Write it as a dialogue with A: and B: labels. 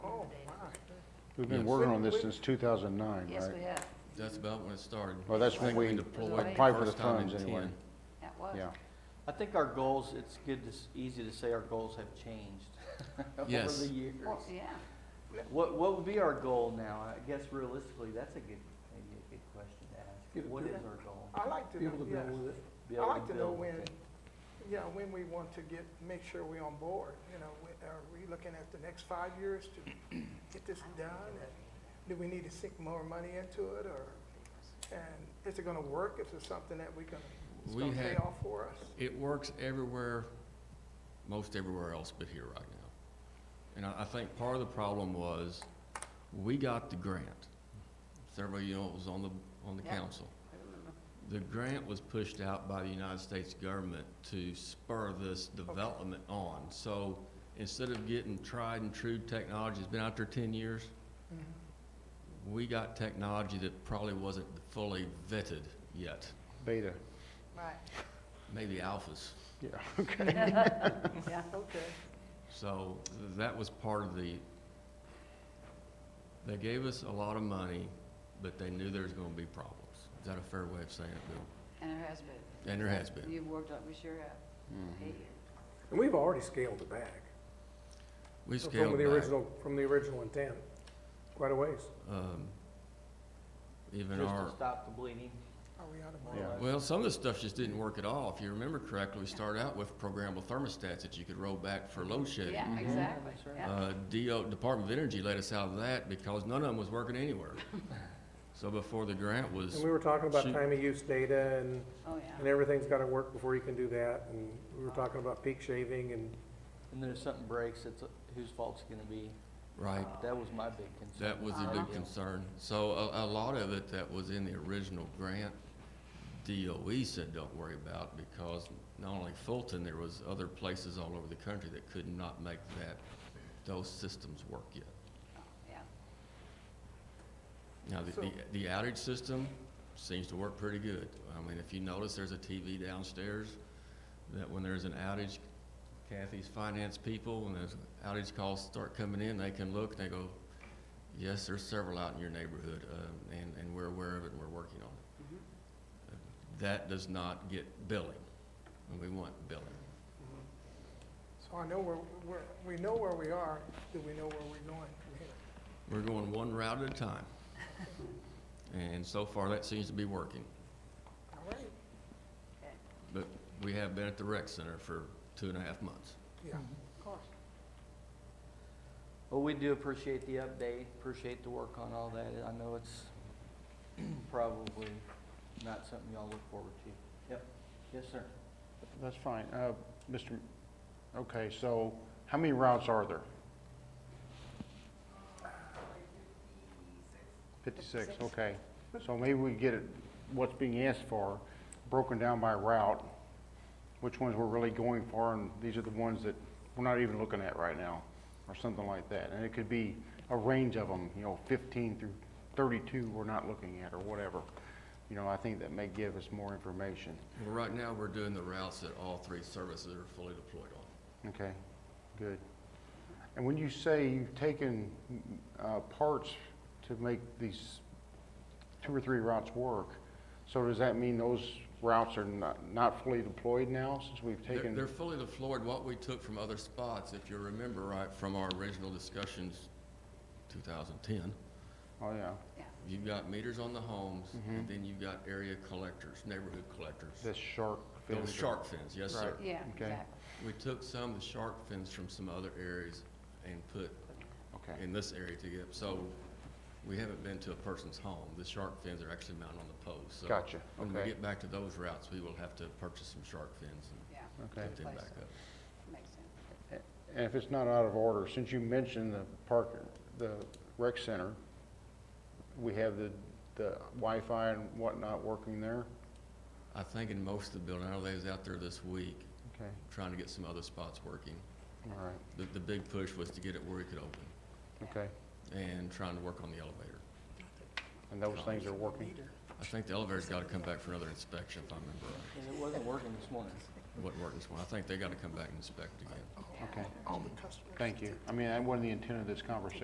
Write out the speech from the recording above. A: Oh,
B: We've been
C: Yes.
B: working on this since 2009,
D: Yes, we
B: right?
D: have.
C: That's about when it started.
B: Well, that's
C: I
B: when
C: think
B: we
C: deployed
B: applied for the
C: first time in
B: funds anyway.
C: 10.
D: That was.
B: Yeah.
E: I think our goals, it's good, to s easy to say our goals have changed
C: Yes.
E: over the years.
D: Well, yeah.
E: What, what would be our goal now? I guess realistically, that's a good, maybe a good question to ask. What is our goal?
A: I like to, know, yes.
E: Be
A: I
E: able
A: like to know
E: build
A: when,
E: it.
A: you know, when we want to get, make sure we're on board, you know, we- are we looking at the next five years to get this done? And Do we need to sink more money into it, or, and is it gonna work, is it something that we can, it's
C: We
A: gonna pay
C: had-
A: off for us?
C: It works everywhere, most everywhere else but here right now. And I, I think part of the problem was, we got the grant. Several, of you know, it was on the, on the
D: Yeah.
C: council.
D: I remember.
C: The grant was pushed out by the United States government to spur this development on. So instead of getting tried and true technology that's been out there ten years,
D: Mm-hmm.
C: we got technology that probably wasn't fully vetted yet,
B: Beta,
D: Right.
C: maybe alphas.
B: yeah.
D: Yeah.
A: Okay,
C: So that was part of the, they gave us a lot of money, but they knew there was gonna be problems. Is that a fair way of saying it, Bill?
D: And it has been.
C: And there has been.
D: You've worked on, we sure have.
B: Mm-hmm.
D: Eight years.
F: And we've already scaled it back.
C: We
F: from
C: scaled
F: the
C: back,
F: original From the original intent, quite a ways.
C: um, even
E: Just
C: our,
E: to stop the bleeding.
A: are we out of
E: more
A: board?
E: or
B: Yeah.
E: less.
C: well, some of the stuff just didn't work at all. If you remember correctly, we started out with programmable thermostats that you could roll back for load shedding.
B: Mm-hmm.
D: Yeah, exactly.
E: That's right.
D: Yeah.
C: Uh, DO, Department of Energy let us out of that because none of them was working anywhere. So before the grant was.
F: And we were talking about
C: Shoot.
F: time of use data and,
D: Oh,
F: and
D: yeah.
F: everything's gotta work before you can do that. And we were talking about peak shaving and
E: And then if something breaks, it's, uh, whose fault's it gonna be? Uh,
C: Right.
E: That was my big concern.
C: That was the
E: Uh-huh.
D: Uh-huh.
C: big concern. So a, a lot of it that was in the original grant, DOE said, don't worry about, because not only Fulton, there was other places all over the country that could not make that, those systems work yet.
D: Yeah.
C: Now, the, the- the outage system seems to work pretty good. I mean, if you notice, there's a TV downstairs that when there's an outage, Kathy's finance people, when those outage calls start coming in, they can look and they go, yes, there's several out in your neighborhood, uh, and, and we're aware of it and we're working on it.
A: Mm-hmm.
D: Mhm.
C: That does not get billing, and we want billing.
A: Mm-hmm. So I know where, where, we know where we are, do we know where we're going from here?
C: We're going one route at a time. And so far, that seems to be working.
A: All right,
C: But we have been at the rec center for two and a half months.
A: yeah,
D: Of course.
E: Well, we do appreciate the update, appreciate the work on all that. I know it's probably not something y'all look forward to. Yep. Yes, sir.
B: That's fine. Uh, Mr., M- okay, so how many routes are there? 56, okay. So maybe we get it, what's being asked for, broken down by route, which ones we're really going for, and these are the ones that we're not even looking at right now, or something like that. And it could be a range of them, you know, 15 through 32 we're not looking at, or whatever. You know, I think that may give us more information.
C: Well, right now, we're doing the routes that all three services are fully deployed on.
B: Okay, good. And when you say you've taken uh, parts to make these two or three routes work, so does that mean those routes are not, not fully deployed now since we've
C: They're- They're
B: taken?
C: fully deployed, what we took from other spots, if you remember right, from our original discussions, 2010.
B: Oh, yeah,
C: You've got meters on the homes,
B: Mm-hmm.
C: and then you've got area collectors, neighborhood collectors.
B: this shark filter.
C: Those shark fins, yes, sir.
B: Right.
D: Yeah,
B: Okay.
D: exactly.
C: We took some of the shark fins from some other areas and put
B: Okay,
C: in this area to get, so we haven't been to a person's home. The shark fins are actually mounted on the post, so.
B: Gotcha,
C: When we
B: okay.
C: get back to those routes, we will have to purchase some shark fins
D: Yeah,
C: and
B: okay.
C: get them
D: Place
C: back
D: them.
C: up.
D: makes sense.
B: And if it's not out of order, since you mentioned the park, the rec center, we have the, the Wi-Fi and whatnot working there?
C: I think in most of the building, I know they was out there this week,
B: Okay,
C: trying to get some other spots working.
B: all right,
C: The, the big push was to get it where we could open,
B: okay.
C: and trying to work on the elevator.
B: And those things are working?
C: I think the elevator's gotta come back for another inspection, if I remember right.
E: And it wasn't working this morning.
C: What worked this morning, I think they gotta come back and inspect again.
B: Okay.
A: all the customers.
B: Thank you. I mean, that wasn't the intent of this conversation.